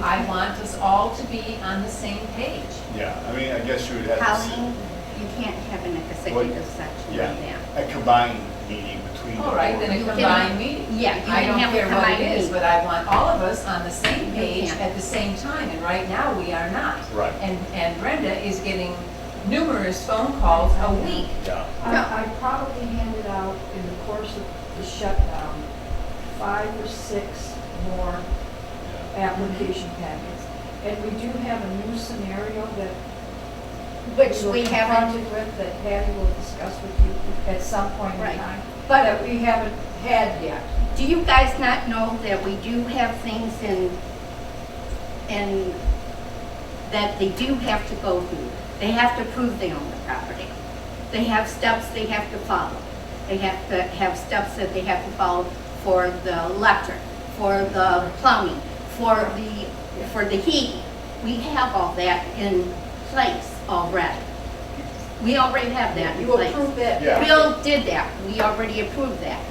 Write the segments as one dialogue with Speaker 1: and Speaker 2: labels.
Speaker 1: I want us all to be on the same page.
Speaker 2: Yeah, I mean, I guess you would have. to
Speaker 3: Colleen,
Speaker 2: s-
Speaker 3: you can't have an executive section
Speaker 2: Yeah,
Speaker 3: on that.
Speaker 2: a combined meeting between. the
Speaker 1: All Oh, right, then a
Speaker 2: boards.
Speaker 1: combined meeting.
Speaker 3: Yeah, you
Speaker 1: I
Speaker 3: can
Speaker 1: don't
Speaker 3: have
Speaker 1: care
Speaker 3: a
Speaker 1: what
Speaker 3: combined
Speaker 1: it is,
Speaker 3: meeting.
Speaker 1: but I want all of us on the same
Speaker 3: You
Speaker 1: page
Speaker 3: can't.
Speaker 1: at the same time, and right now, we are not.
Speaker 2: Right.
Speaker 1: And, and Brenda is getting numerous phone calls a week.
Speaker 2: Yeah,
Speaker 4: I I probably handed out in the course of the shutdown, five or six more
Speaker 2: yeah.
Speaker 4: application packets. And we do have a new scenario that
Speaker 3: Which
Speaker 4: were
Speaker 3: we haven't,
Speaker 4: confronted with that Patty will discuss with you at some point
Speaker 3: Right.
Speaker 4: in time, but that we haven't had yet.
Speaker 3: do you guys not know that we do have things in, in, that they do have to go through? They have to prove they own the property. They have steps they have to follow. They have to have steps that they have to follow for the electric, for the plumbing, for the, for the heat. We have all that in place already. We already have that in
Speaker 4: You
Speaker 3: place.
Speaker 4: approve that.
Speaker 2: Yeah.
Speaker 3: Bill did that, we already approved that.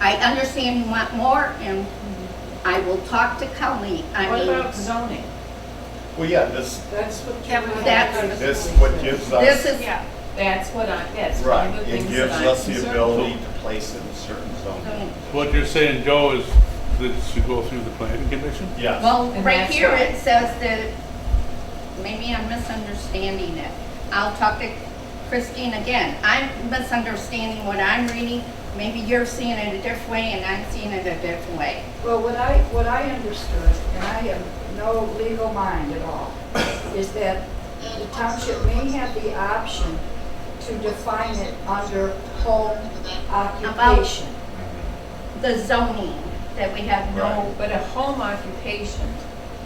Speaker 3: I understand you want more, and I will talk to Colleen, I
Speaker 1: What
Speaker 3: mean,
Speaker 1: about zoning?
Speaker 2: Well, yeah, this,
Speaker 4: That's what.
Speaker 3: That was- that's-
Speaker 2: this what gives
Speaker 3: this
Speaker 2: us,
Speaker 3: is,
Speaker 1: That's what I, that's one
Speaker 2: right,
Speaker 1: of the
Speaker 2: it
Speaker 1: things
Speaker 2: gives
Speaker 1: that I'm
Speaker 2: us the
Speaker 1: concerned about.
Speaker 2: ability to place it in certain zones.
Speaker 5: What you're saying, Joe, is that it should go through the planning commission?
Speaker 2: Yes,
Speaker 3: well,
Speaker 1: And
Speaker 3: right
Speaker 1: that's
Speaker 3: here
Speaker 1: why.
Speaker 3: it says that, maybe I'm misunderstanding it. I'll talk to Christine again, I'm misunderstanding what I'm reading, maybe you're seeing it a different way, and I'm seeing it a different way.
Speaker 4: Well, what I, what I understood, and I have no legal mind at all, is that the township may have the option to define it under home occupation.
Speaker 3: The zoning, that we have no,
Speaker 2: Right.
Speaker 1: But a home occupation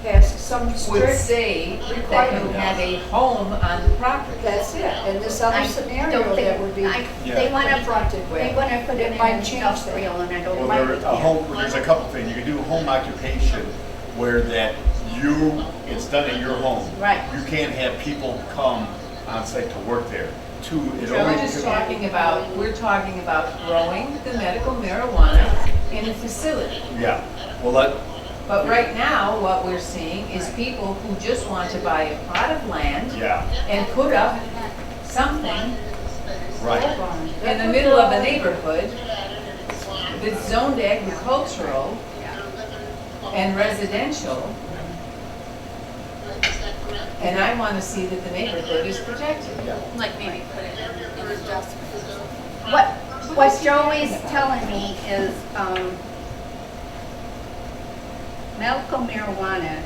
Speaker 4: Has some
Speaker 1: would
Speaker 4: strict,
Speaker 1: say that you have a home on the property.
Speaker 4: that's it, and this
Speaker 3: I
Speaker 4: other
Speaker 3: don't
Speaker 4: scenario that would
Speaker 3: think,
Speaker 4: be
Speaker 3: I,
Speaker 2: Yeah.
Speaker 3: they want to
Speaker 4: confronted
Speaker 3: They
Speaker 4: with.
Speaker 3: want to put it in
Speaker 4: It might change that.
Speaker 3: industrial, and I don't
Speaker 2: well,
Speaker 3: like
Speaker 2: there,
Speaker 3: it.
Speaker 2: a home, there's a couple things, you can do home occupation where that you, it's done at your home.
Speaker 3: Right.
Speaker 2: You can't have people come on site to work there. Two, it
Speaker 1: We're
Speaker 2: always.
Speaker 1: just talking about, we're talking about growing the medical marijuana in a facility.
Speaker 2: Yeah, well, let,
Speaker 1: But right now, what we're seeing is people who just want to buy a plot of land
Speaker 2: yeah,
Speaker 1: and put up something
Speaker 2: right,
Speaker 1: in the middle of a neighborhood that's zoned agricultural and residential. And I want to see that the neighborhood is protected.
Speaker 2: yeah.
Speaker 6: Like maybe put it in an adjustment.
Speaker 3: What, what Joey's telling me is, um, medical marijuana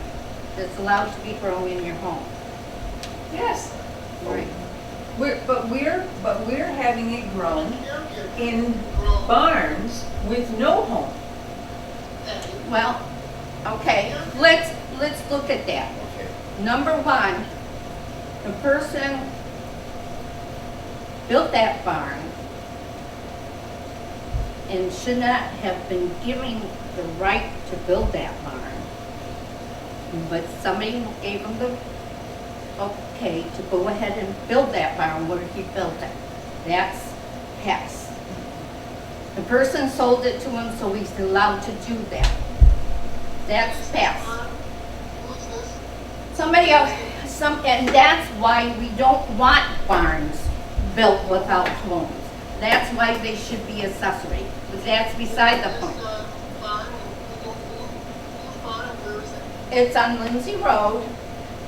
Speaker 3: is allowed to be grown in your home.
Speaker 1: Yes.
Speaker 3: Right.
Speaker 1: We're, but we're, but we're having it grown in barns with no home.
Speaker 3: Well, okay, let's, let's look at that.
Speaker 2: Okay.
Speaker 3: Number one, the person built that barn and should not have been given the right to build that barn. But somebody gave him the okay to go ahead and build that barn where he built it. That's passed. The person sold it to him, so he's allowed to do that. That's passed. Somebody else, some, and that's why we don't want barns built without homes. That's why they should be accessory, but that's beside the point. It's on Lindsay Road,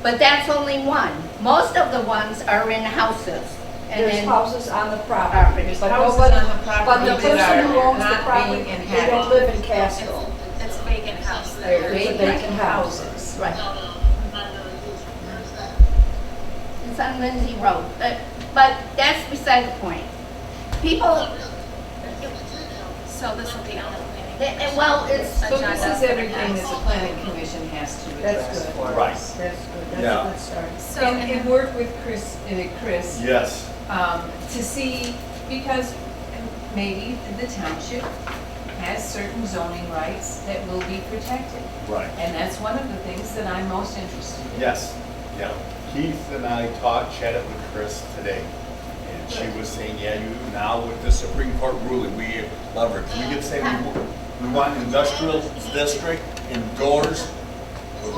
Speaker 3: but that's only one. Most of the ones are in houses and
Speaker 4: There's
Speaker 3: in,
Speaker 4: houses on the property.
Speaker 3: properties.
Speaker 4: But
Speaker 1: Houses
Speaker 4: nobody-
Speaker 1: on the
Speaker 4: But the
Speaker 1: property that
Speaker 4: person who
Speaker 1: are
Speaker 4: owns the
Speaker 1: not
Speaker 4: property,
Speaker 1: being
Speaker 4: they don't
Speaker 1: inhabited.
Speaker 4: live in Casco.
Speaker 6: It's vacant house
Speaker 1: They're
Speaker 6: there.
Speaker 1: vacant houses.
Speaker 3: right, it's on Lindsay Road, but, but that's beside the point. People,
Speaker 6: So this will be on the planning.
Speaker 3: eh, eh, well, it's,
Speaker 1: So this is everything that the planning commission has to
Speaker 4: That's
Speaker 1: address
Speaker 4: good.
Speaker 1: for
Speaker 2: Right.
Speaker 1: us.
Speaker 4: That's good,
Speaker 2: Yeah.
Speaker 4: that's a good start.
Speaker 6: So,
Speaker 1: And, and
Speaker 6: and
Speaker 1: work with Chris, uh, Chris,
Speaker 2: Yes,
Speaker 1: um, to see, because maybe the township has certain zoning rights that will be protected.
Speaker 2: right.
Speaker 1: And that's one of the things that I'm most interested in.
Speaker 2: Yes, yeah. Keith and I talked, chatted with Chris today, and she was saying, yeah, you, now with the Supreme Court ruling, we love her. We could say we want, we want industrial district indoors